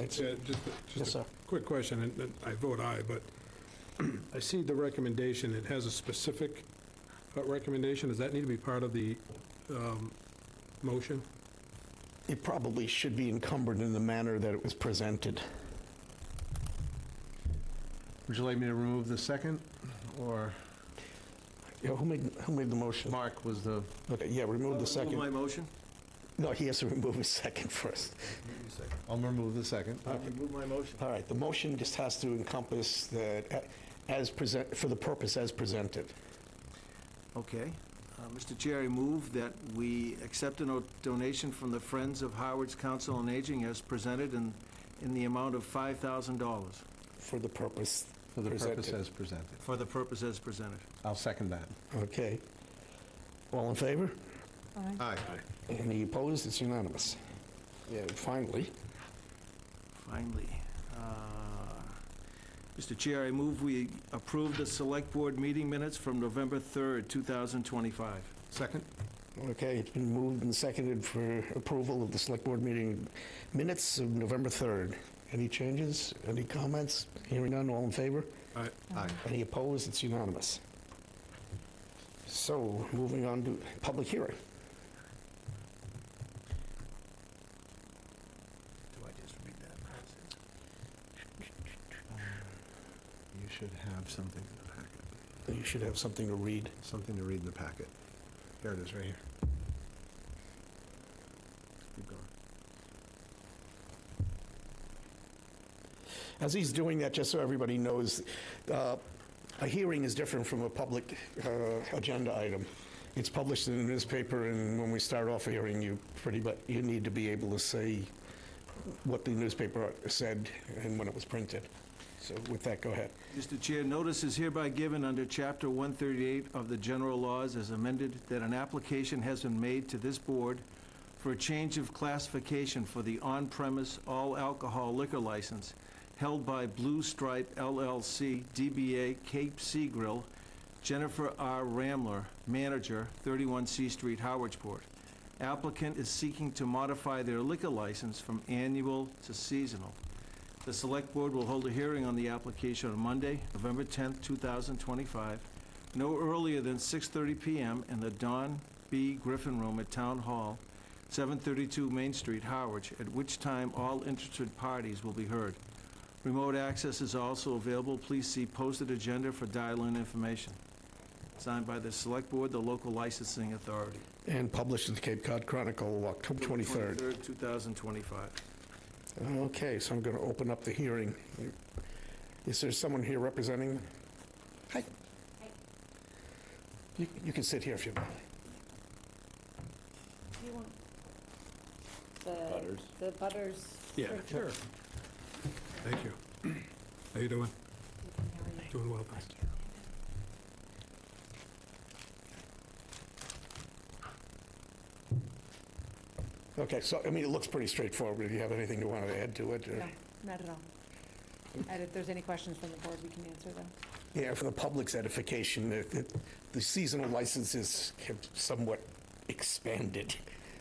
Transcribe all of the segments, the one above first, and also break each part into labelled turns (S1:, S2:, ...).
S1: That's it. Just, a-
S2: Yes,
S1: just
S2: sir.
S1: a quick question, and and I vote aye, but I see the recommendation, it has a specific uh, recommendation. Does that need to be part of the um, motion?
S2: It probably should be encumbered in the manner that it was presented.
S3: Would you like me to remove the second, or
S2: Yeah, Who made, who made the motion?
S3: Mark was the?
S2: Okay, yeah, remove the
S1: Uh,
S2: second.
S4: motion?
S2: No, he has to remove his second first.
S3: I'll remove the second.
S4: Move my motion.
S2: All right, the motion just has to encompass that uh, as present, for the purpose as presented.
S4: Okay. Uh, Mr. Chair, I move that we accept a no- donation from the Friends of Howard's Council on Aging as presented in, in the amount of $5,000
S2: For the purpose.
S3: For the purpose
S2: presented.
S3: as presented.
S4: for the purpose as presented.
S3: I'll second that.
S2: Okay. All in favor?
S3: Aye.
S2: Any opposed? It's unanimous. Yeah, finally.
S4: Finally. Uh, Mr. Chair, I move we approve the Select Board meeting minutes from November 3rd, 2025.
S3: Second?
S2: Okay, it's been moved and seconded for approval of the Select Board meeting minutes of November 3rd. Any changes? Any comments? Hearing none, all in favor?
S1: Aye.
S3: Aye.
S2: Any opposed? It's unanimous. So, moving on to public hearing.
S4: Do I just read that?
S3: You should have something in the packet,
S2: You should have something to read.
S3: something to read in the packet. Here it is, right here.
S4: Keep going.
S2: As he's doing that, just so everybody knows, uh, a hearing is different from a public uh, agenda item. It's published in the newspaper, and when we start off a hearing, you pretty, but you need to be able to say what the newspaper said and when it was printed. So with that, go ahead.
S4: Mr. Chair, notice is hereby given under Chapter 138 of the General Laws as amended that an application has been made to this board for a change of classification for the on-premise all-alcohol liquor license held by Blue Stripe LLC, DBA Cape Sea Grill, Jennifer R. Ramler, manager, 31 C Street, Howardsport. Applicant is seeking to modify their liquor license from annual to seasonal. The Select Board will hold a hearing on the application on Monday, November 10th, 2025, no earlier than 6:30 PM in the Don B. Griffin Room at Town Hall, 732 Main Street, Harwich, at which time all interested parties will be heard. Remote access is also available. Please see posted agenda for dial-in information. Signed by the Select Board, the local licensing authority.
S2: And published in the Cape Cod Chronicle, October 23rd.
S4: 23rd, 2025.
S2: Okay, so I'm going to open up the hearing. Is there someone here representing? Hi. You you can sit here if you want.
S5: You want the- The butters.
S1: Yeah, sure. Thank you. How you doing? Doing well, thanks.
S2: Okay, so, I mean, it looks pretty straightforward. If you have anything you want to add to it? or-
S5: No, not at all. And if there's any questions from the board, we can answer them.
S2: Yeah, for the public's edification, the- the- the seasonal licenses have somewhat expanded,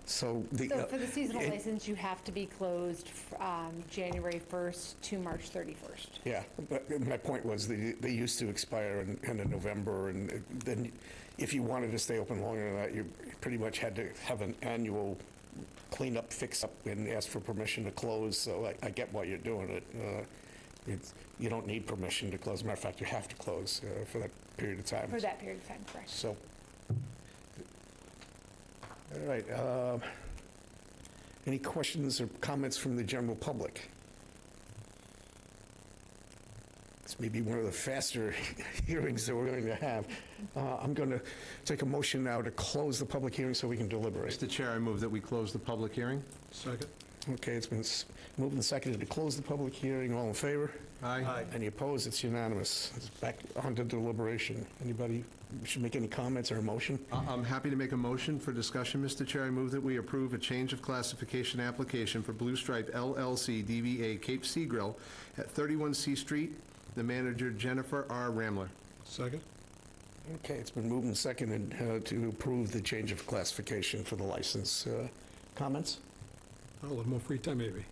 S2: so the...
S6: So
S2: uh,
S6: for the seasonal
S2: it-
S6: license, you have to be closed um, January 1st to March 31st.
S2: Yeah, but my point was, they they used to expire in end of November, and then if you wanted to stay open longer than that, you pretty much had to have an annual cleanup, fix-up, and ask for permission to close, so I- I get why you're doing it. Uh, it's- You don't need permission to close, matter of fact, you have to close uh, for that period of time.
S6: For that period of time, correct?
S2: So, all right. um, Any questions or comments from the general public? This may be one of the faster hearings that we're going to have. Uh, I'm going to take a motion now to close the public hearing so we can deliberate.
S3: Mr. Chair, I move that we close the public hearing.
S1: Second?
S2: Okay, it's been s- moved and seconded to close the public hearing. All in favor?
S3: Aye.
S2: Any opposed? It's unanimous. It's back onto deliberation. Anybody should make any comments or a motion?
S3: I- I'm happy to make a motion for discussion, Mr. Chair. I move that we approve a change of classification application for Blue Stripe LLC DVA Cape Sea Grill at 31 C Street, the manager Jennifer R. Ramler.
S1: Second?
S2: Okay, it's been moved and seconded uh, to approve the change of classification for the license. Uh, Comments?
S1: Oh, A little more free time, maybe.